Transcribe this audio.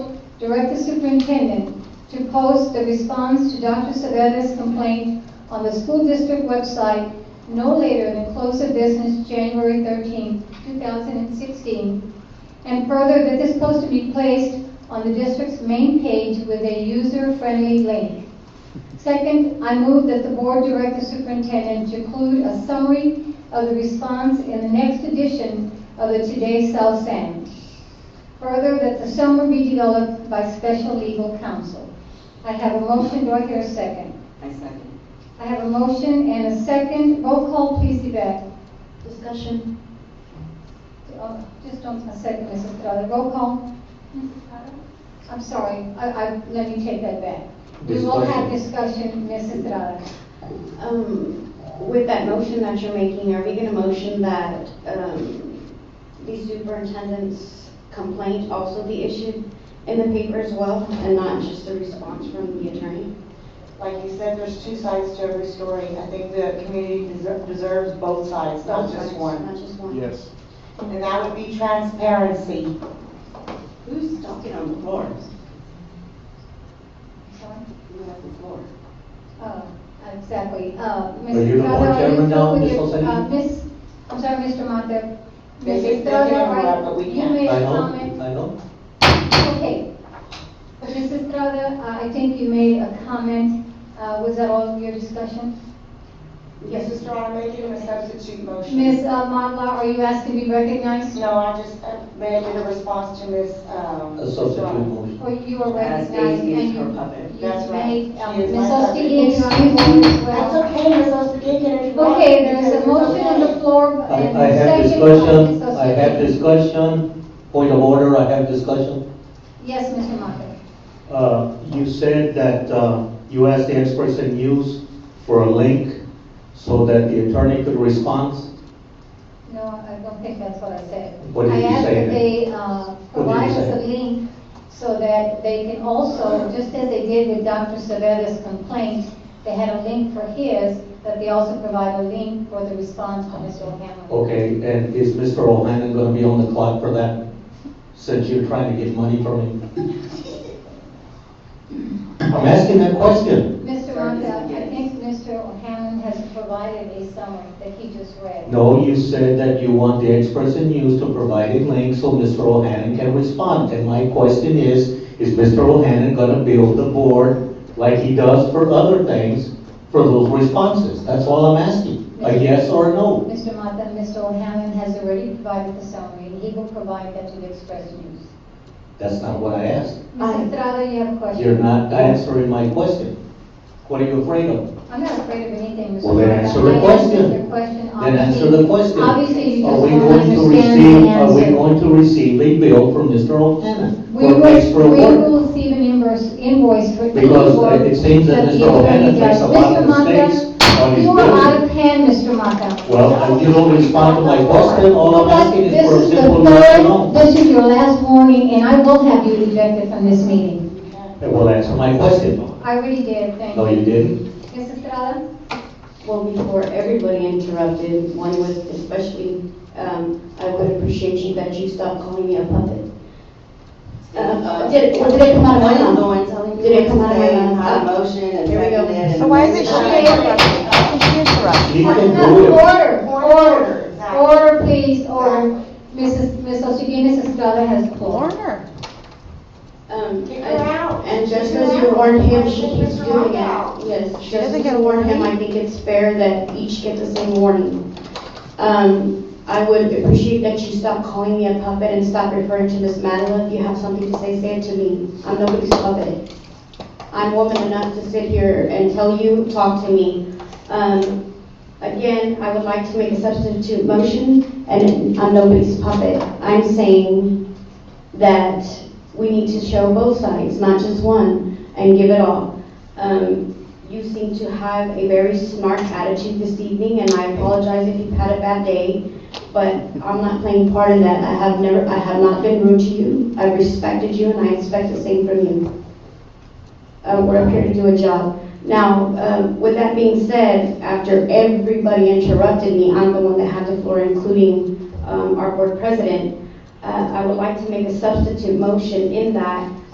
direct the superintendent to post the response to Dr. Savetta's complaint on the school district website no later than close of business January 13, 2016, and further that this post to be placed on the district's main page with a user-friendly link. Second, I move that the board direct the superintendent to include a summary of the response in the next edition of the Today South Sand. Further, that the summary be developed by special legal counsel. I have a motion, do I hear a second? I second. I have a motion and a second, roll call please, Yvette. Discussion? Uh, Just on a second, Mrs. Estrada, roll call. I'm sorry, I, I, let me take that back. We will have discussion, Mrs. Estrada. Um, with that motion that you're making, are we gonna motion that, um, the superintendent's complaint also be issued in the paper as well, and not just a response from the attorney? Like you said, there's two sides to every story. I think the community deser- deserves both sides, not just one. Not just one? Yes. And that would be transparency. Who's talking on the floor? Sorry. Who has the floor? Uh, Exactly. Uh, Ms. Are you the board Estrada, chairman you now, talk with Ms. your- Olsen? uh, Ms., I'm sorry, Mr. Mata. They Ms. can- they can Estrada, interrupt, but right, we you can't. made I a know, comment. I know. Okay. Ms. Estrada, uh, I I think you made a comment. Uh, Was that all of your discussion? Mrs. Strong, making a substitute motion. Ms. Madla, uh, are you asking to be recognized? No, I just uh, made it a response to Ms. um, A substitute Strong. motion. Or you are As recognized? Daisy is and her you- puppet. you That's right. made, She um, is Ms. my Osteen, you are substitute. involved as That's well. okay, Ms. Ospey, can you? Okay, there is a motion on the floor uh, I and I have second. by Ms. discussion, I Osteen. have discussion, point of order, I have discussion. Yes, Mr. Mata. Uh, You said that uh, you asked the experts in use for a link so that the attorney could respond. No, I don't think that's what I said. What did you I asked say that then? they uh, provide us a say? link so that they can also, just as they did with Dr. Savetta's complaint, they had a link for his, that they also provide a link for the response from Mr. O'Hanlon. Oh. Okay, and is Mr. O'Hannon gonna be on the clock for that, since you're trying to get money from him? I'm asking that question. Mr. Ronda, I think Mr. O'Hanlon has provided a summary that he just read. No, you said that you want the experts in use to provide a link so Mr. O'Hannon can respond. And my question is, is Mr. O'Hannon gonna build the board like he does for other things for those responses? That's all I'm asking, a yes or a no. Mr. Mata, Mr. O'Hanlon has already provided the summary, and he will provide that to the Express News. That's not what I asked. Ms. Estrada, you have a question? You're not answering my question. What are you afraid of? I'm not afraid of anything, Mr. Well, then President. answer the I question. answered your question. Then answer Obviously- the question. Obviously, you Are just we don't going to understand receive? the Are we answer. going to receive a bill from Mr. O'Hannon? We for will, extra we work? will receive an invoice, invoice for. Because for- it seems the that Mr. O'Hannon attorney makes a does. lot of Mr. Mata, mistakes on his You are out bills. of hand, Mr. Mata. Well, if you don't respond to my question, all I'm asking is for a This is simple the yes or third, no. this is your last warning, and I will have you ejected from this meeting. And will answer my question. I already did, thank you. No, you didn't. Ms. Estrada? Well, before everybody interrupted, one was especially, um, I would appreciate you that you stopped calling me a puppet. Uh, did, it- did it come out of my Why mouth? don't no one telling you? Did it come out of my Saying mouth? how the motion and Here we go. seconded and- So Why is it she interrupting? How can she interrupt? He Order, can do it. Order, order, Exactly. order, please, order. Mrs. Ms. Oshigi, Mrs. Estrada has the floor. Order. Um, Kick her out. and and just Kick as her you out. warned him, Kick she keeps Mr. doing it. Rockwell. Yes, She just doesn't as get you warned him, warning? I think it's fair that each get the same warning. Um, I would appreciate that you stop calling me a puppet and stop referring to Miss Madeline. If you have something to say, say it to me. I'm nobody's puppet. I'm woman enough to sit here and tell you, talk to me. Um, again, I would like to make a substitute motion, and I'm nobody's puppet. I'm saying that we need to show both sides, not just one, and give it all. Um, you seem to have a very smart attitude this evening, and I apologize if you've had a bad day, but I'm not playing part in that. I have never, I have not been rude to you. I've respected you, and I expect the same from you. Uh, we're up here to do a job. Now, um, with that being said, after everybody interrupted me, I'm the one that had the floor, including um, our board president. Uh, I would like to make a substitute motion in that